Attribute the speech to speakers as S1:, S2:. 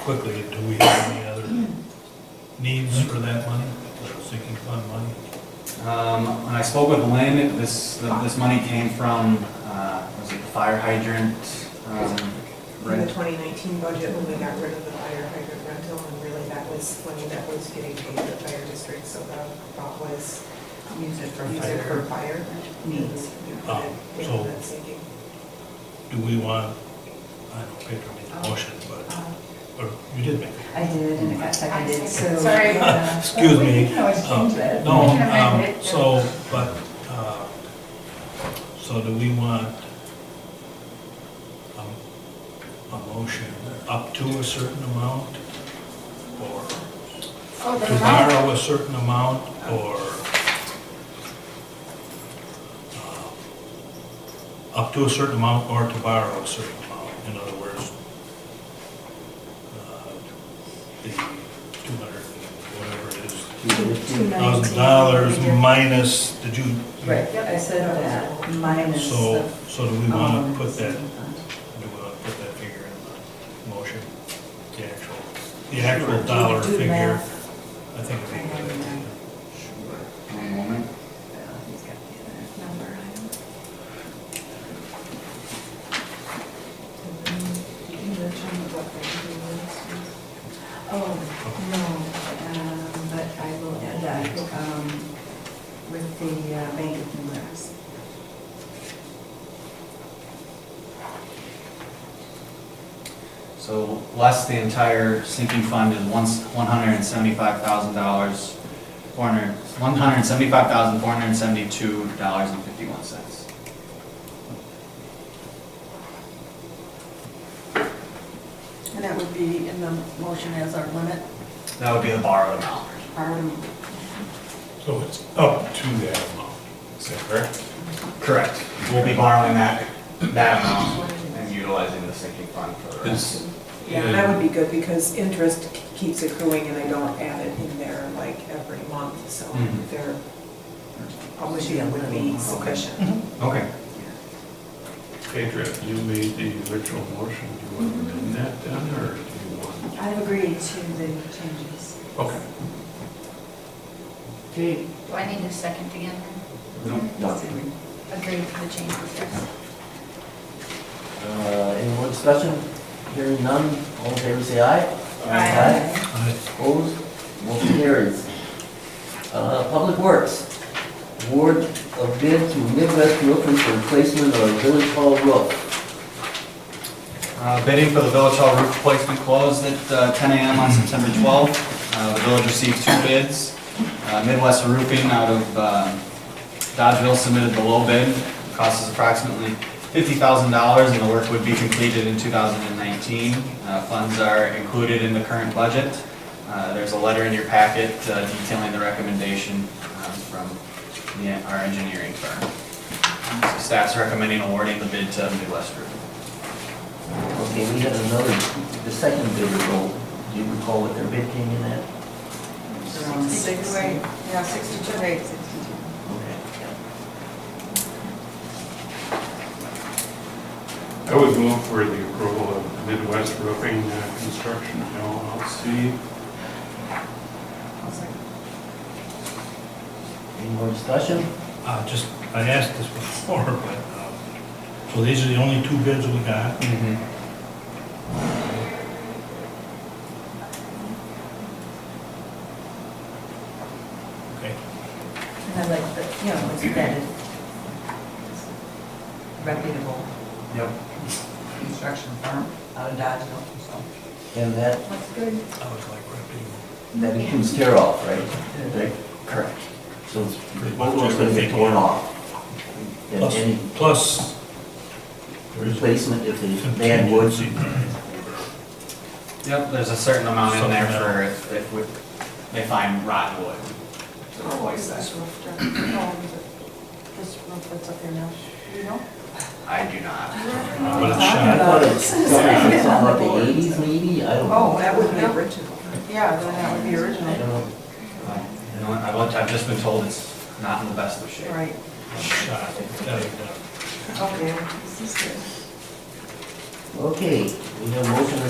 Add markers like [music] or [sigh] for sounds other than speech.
S1: quickly, do we have any other needs for that money, for sinking fund money?
S2: Um, When I spoke with Lynn, this, this money came from, uh, was it the fire hydrant? um,
S3: In the
S2: rent?
S3: 2019 budget, when we got rid of the fire hydrant rental, and really that was money that was getting paid to the fire district, so the thought was
S4: Use it for
S3: use it for
S4: fire
S3: fire.
S4: needs.
S3: And
S1: Oh,
S3: put it
S1: so-
S3: in that sinking.
S1: Do we want, I don't think we made a motion, but,
S4: Uh,
S1: or you did make,
S4: I did, and it got seconded, [laughs] so.
S5: Sorry.
S4: uh,
S1: excuse
S4: we
S1: me. Uh,
S4: can always change it.
S1: No,
S5: We can amend
S1: um,
S5: it.
S1: so, but, uh, so do we want um, a motion up to a certain amount? Or
S5: Oh,
S1: to
S5: the amount,
S1: borrow a certain amount, or uh, up to a certain amount, or to borrow a certain amount? In other words, uh, the 200, whatever it is,
S4: Two
S1: thousand
S4: nineteen.
S1: dollars minus, did you?
S4: Right, I said that, minus the.
S1: So, so do we want
S4: um,
S1: to put that, do
S4: sinking fund.
S1: we want to put that figure in the motion? The actual, the actual dollar
S4: Do the
S1: figure?
S4: math.
S1: I think it'd be a good idea.
S2: One moment.
S4: Well, he's got the other number, I don't-
S3: And then, did you mention what the hydrant was?
S4: Oh, no, um, but I will add that, um, with the uh, Bank of New Lyrics.
S2: So less the entire sinking fund is once, one hundred and seventy-five thousand dollars, four hundred, one hundred and seventy-five thousand, four hundred and seventy-two dollars and fifty-one cents.
S6: And that would be in the motion as our limit,
S2: That would be the borrowed amount.
S6: our,
S7: So it's up to that amount, is that correct?
S2: Correct. We'll be borrowing that, that amount and utilizing the sinking fund for the rest.
S7: Is-
S3: Yeah, and that would be good because interest k- keeps accruing and I don't add it in there like every month, so
S1: Mm-hmm.
S2: Mhm.
S3: there, obviously it would be sufficient.
S1: Mm-hmm.
S2: Okay.
S7: Pedro, you made the original motion, do you want
S4: Mm-hmm.
S7: to amend that then, or do you want?
S4: I've agreed to the changes.
S7: Okay.
S4: Agreed.
S5: do I need a second again? Agree to the changes, yes.
S8: Uh, Any more discussion? Hearing none, all in favor say aye.
S5: Aye.
S8: Opposed? Motion carries. Uh, Public Works, award of bid to Midwest Roofing for replacement of Village Hall roof.
S2: Uh, Bidding for the Village Hall roof replacement closed at uh, 10 AM on September 12th. Uh, The village received two bids. Uh, Midwest Roofing out of uh, Dodgeville submitted the low bid. Cost is approximately $50,000 and the work would be completed in 2019. Uh, Funds are included in the current budget. Uh, There's a letter in your packet uh, detailing the recommendation um, from the- our engineering firm. So Staff's recommending awarding the bid to Midwest Roofing.
S8: Okay, we got another, the second bid though. Do you recall what their bid came in at?
S4: Around six.
S6: Sixty-two, yeah, sixty-two, eight, sixty-two.
S8: Okay.
S7: I would move for the approval of Midwest Roofing uh, Construction LLC.
S6: I'll second.
S8: Any more discussion?
S1: Uh, just, I asked this before, [laughs] but, um, so these are the only two bids we got? Okay,
S4: And I like the, you know, it's vetted. Reputable
S2: Yep.
S4: construction firm out of Dodgeville, so.
S8: And that,
S4: That's good.
S1: I was like, repeating.
S8: that includes tear off, right? Right. Correct. So it's pretty much going to get torn off. And any
S1: Plus, plus, there is
S8: replacement if they, they had wood.
S1: contingency.
S2: Yep, there's a certain amount in there for if, if we- they find rotten wood to replace that.
S6: This roof, Jeff. Oh, is it This roof that's up here now, you know?
S2: I do not.
S1: But it's shot.
S8: I thought it was something from what, the eighties maybe? I don't know.
S6: Oh,
S3: That would be
S6: yeah.
S3: original.
S6: Yeah, then that would be
S8: I
S6: original.
S8: don't know.
S2: You know, I've, I've just been told it's not in the best of shape.
S6: Right,
S1: shot, that is done.
S6: okay.
S8: Okay, we have a motion